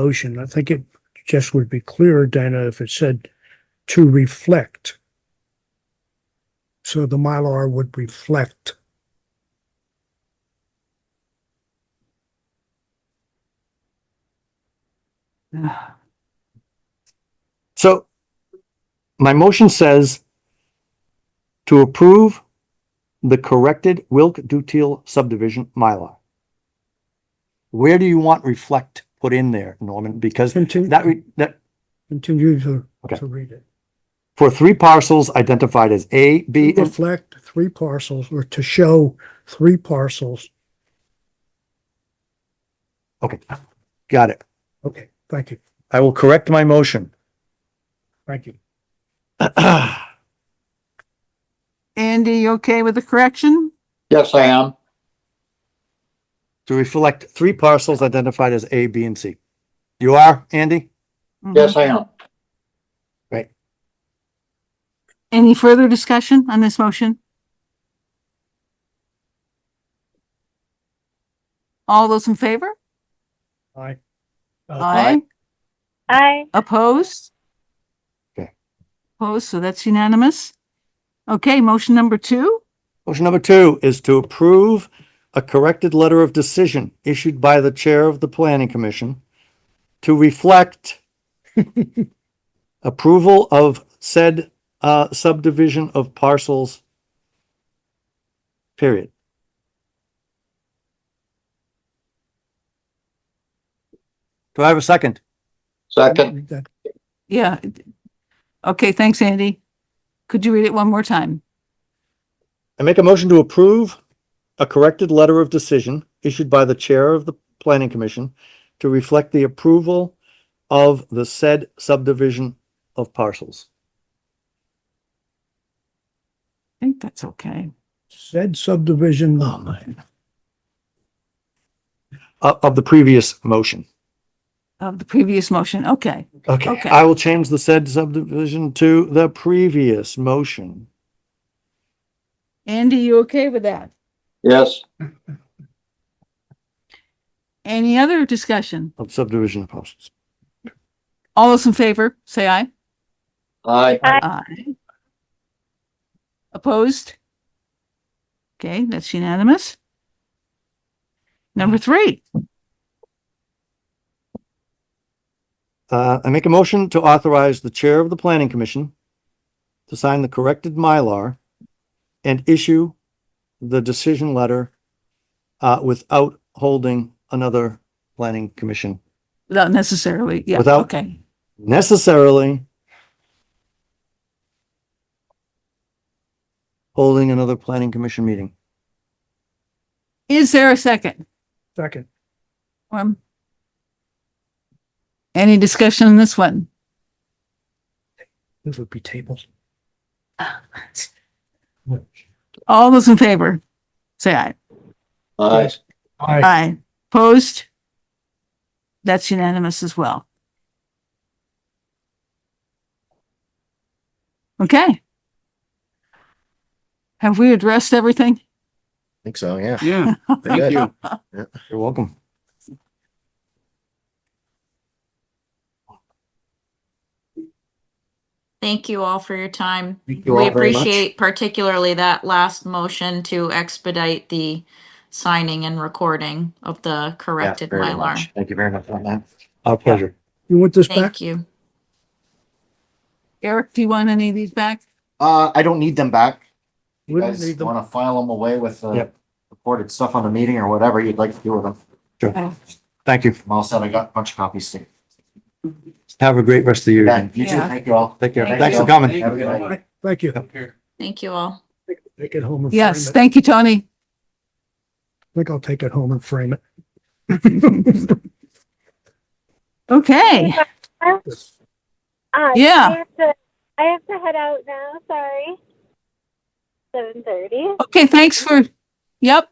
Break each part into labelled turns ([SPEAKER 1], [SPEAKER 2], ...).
[SPEAKER 1] motion. I think it just would be clearer, Dana, if it said to reflect. So the Mylar would reflect.
[SPEAKER 2] So my motion says to approve the corrected Wilk Dutiel subdivision Mylar. Where do you want reflect put in there, Norman? Because
[SPEAKER 1] Continue,
[SPEAKER 2] that, re- that,
[SPEAKER 1] continue to,
[SPEAKER 2] Okay.
[SPEAKER 1] to read it.
[SPEAKER 2] for three parcels identified as A, B, and
[SPEAKER 1] Reflect three parcels or to show three parcels.
[SPEAKER 2] Okay, got it.
[SPEAKER 1] Okay, thank you,
[SPEAKER 2] I will correct my motion.
[SPEAKER 1] thank you.
[SPEAKER 3] Andy, you okay with the correction?
[SPEAKER 4] Yes, I am.
[SPEAKER 2] To reflect three parcels identified as A, B, and C. You are, Andy?
[SPEAKER 3] Mm-hmm.
[SPEAKER 4] Yes, I am.
[SPEAKER 3] Any further discussion on this motion? All those in favor?
[SPEAKER 1] Aye.
[SPEAKER 3] Aye.
[SPEAKER 5] Aye.
[SPEAKER 3] Opposed?
[SPEAKER 2] Okay.
[SPEAKER 3] Opposed, so that's unanimous. Okay, motion number two.
[SPEAKER 2] Motion number two is to approve a corrected letter of decision issued by the Chair of the Planning Commission to reflect approval of said uh, subdivision of parcels. Period. Do I have a second?
[SPEAKER 4] Second,
[SPEAKER 1] That-
[SPEAKER 3] Yeah. Okay, thanks, Andy. Could you read it one more time?
[SPEAKER 2] I make a motion to approve a corrected letter of decision issued by the Chair of the Planning Commission to reflect the approval of the said subdivision of parcels.
[SPEAKER 3] I think that's okay.
[SPEAKER 1] Said subdivision
[SPEAKER 2] Oh, man. uh, Of, of the previous motion.
[SPEAKER 3] Of the previous motion, okay.
[SPEAKER 2] Okay,
[SPEAKER 3] Okay.
[SPEAKER 2] I will change the said subdivision to the previous motion.
[SPEAKER 3] Andy, you okay with that?
[SPEAKER 4] yes,
[SPEAKER 3] Any other discussion?
[SPEAKER 2] Of subdivision of parcels.
[SPEAKER 3] All those in favor, say aye.
[SPEAKER 4] aye,
[SPEAKER 3] Aye. Opposed? Okay, that's unanimous. Number three,
[SPEAKER 2] Uh, I make a motion to authorize the chair of the planning commission to sign the corrected Mylar and issue the decision letter uh, without holding another planning commission
[SPEAKER 3] without necessarily, yeah,
[SPEAKER 2] Without-
[SPEAKER 3] okay.
[SPEAKER 2] necessarily holding another planning commission meeting.
[SPEAKER 3] Is there a second?
[SPEAKER 1] second.
[SPEAKER 3] Um, Any discussion on this one?
[SPEAKER 1] This would be tables.
[SPEAKER 3] All those in favor, say aye.
[SPEAKER 4] aye,
[SPEAKER 1] Aye.
[SPEAKER 3] Aye. Opposed? That's unanimous as well. Okay. Have we addressed everything?
[SPEAKER 6] Think so, yeah.
[SPEAKER 7] Yeah, thank you.
[SPEAKER 2] You're welcome.
[SPEAKER 8] Thank you all for your time.
[SPEAKER 6] Thank you
[SPEAKER 8] We
[SPEAKER 6] all very much.
[SPEAKER 8] appreciate particularly that last motion to expedite the signing and recording of the
[SPEAKER 6] Yeah,
[SPEAKER 8] corrected
[SPEAKER 6] very
[SPEAKER 8] Mylar.
[SPEAKER 6] much. Thank you very much on that.
[SPEAKER 2] Our pleasure.
[SPEAKER 1] You want this back?
[SPEAKER 8] Thank you.
[SPEAKER 3] Eric, do you want any of these back?
[SPEAKER 6] Uh, I don't need them back. You
[SPEAKER 1] We don't
[SPEAKER 6] guys
[SPEAKER 1] need them.
[SPEAKER 6] wanna file them away with the
[SPEAKER 2] Yep.
[SPEAKER 6] recorded stuff on the meeting or whatever you'd like to do with them.
[SPEAKER 2] Thank you.
[SPEAKER 6] I'm all set. I got a bunch of copies. to-
[SPEAKER 2] Have a great rest of the year.
[SPEAKER 6] Yeah, you too.
[SPEAKER 3] Yeah.
[SPEAKER 6] Thank you all.
[SPEAKER 2] Take care.
[SPEAKER 8] Thank
[SPEAKER 2] Thanks
[SPEAKER 6] you.
[SPEAKER 2] for coming.
[SPEAKER 6] Have a good night.
[SPEAKER 1] Aye, Thank you.
[SPEAKER 8] Thank you all.
[SPEAKER 1] Take it home and. frame
[SPEAKER 3] Yes,
[SPEAKER 1] it.
[SPEAKER 3] thank you, Tony.
[SPEAKER 1] I think I'll take it home and frame it.
[SPEAKER 3] Okay,
[SPEAKER 5] Aye.
[SPEAKER 3] Yeah.
[SPEAKER 5] Uh, I have to, I have to head out now. Sorry. Seven thirty.
[SPEAKER 3] okay, thanks for, yep.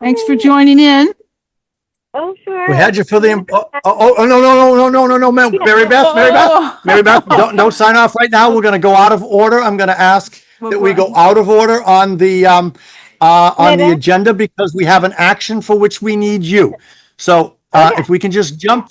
[SPEAKER 3] Thanks for joining in.
[SPEAKER 5] Oh, sure.
[SPEAKER 2] We had you for the, im- oh, oh, oh, no, no, no, no, no, no, no, Mary Beth, Mary Beth.
[SPEAKER 3] Oh,
[SPEAKER 2] Mary Beth, don't, don't sign off right now. We're gonna go out of order. I'm gonna ask that we go out of order on the, um, uh, on the
[SPEAKER 5] Minute.
[SPEAKER 2] agenda because we have an action for which we need you. So, uh, if we can just jump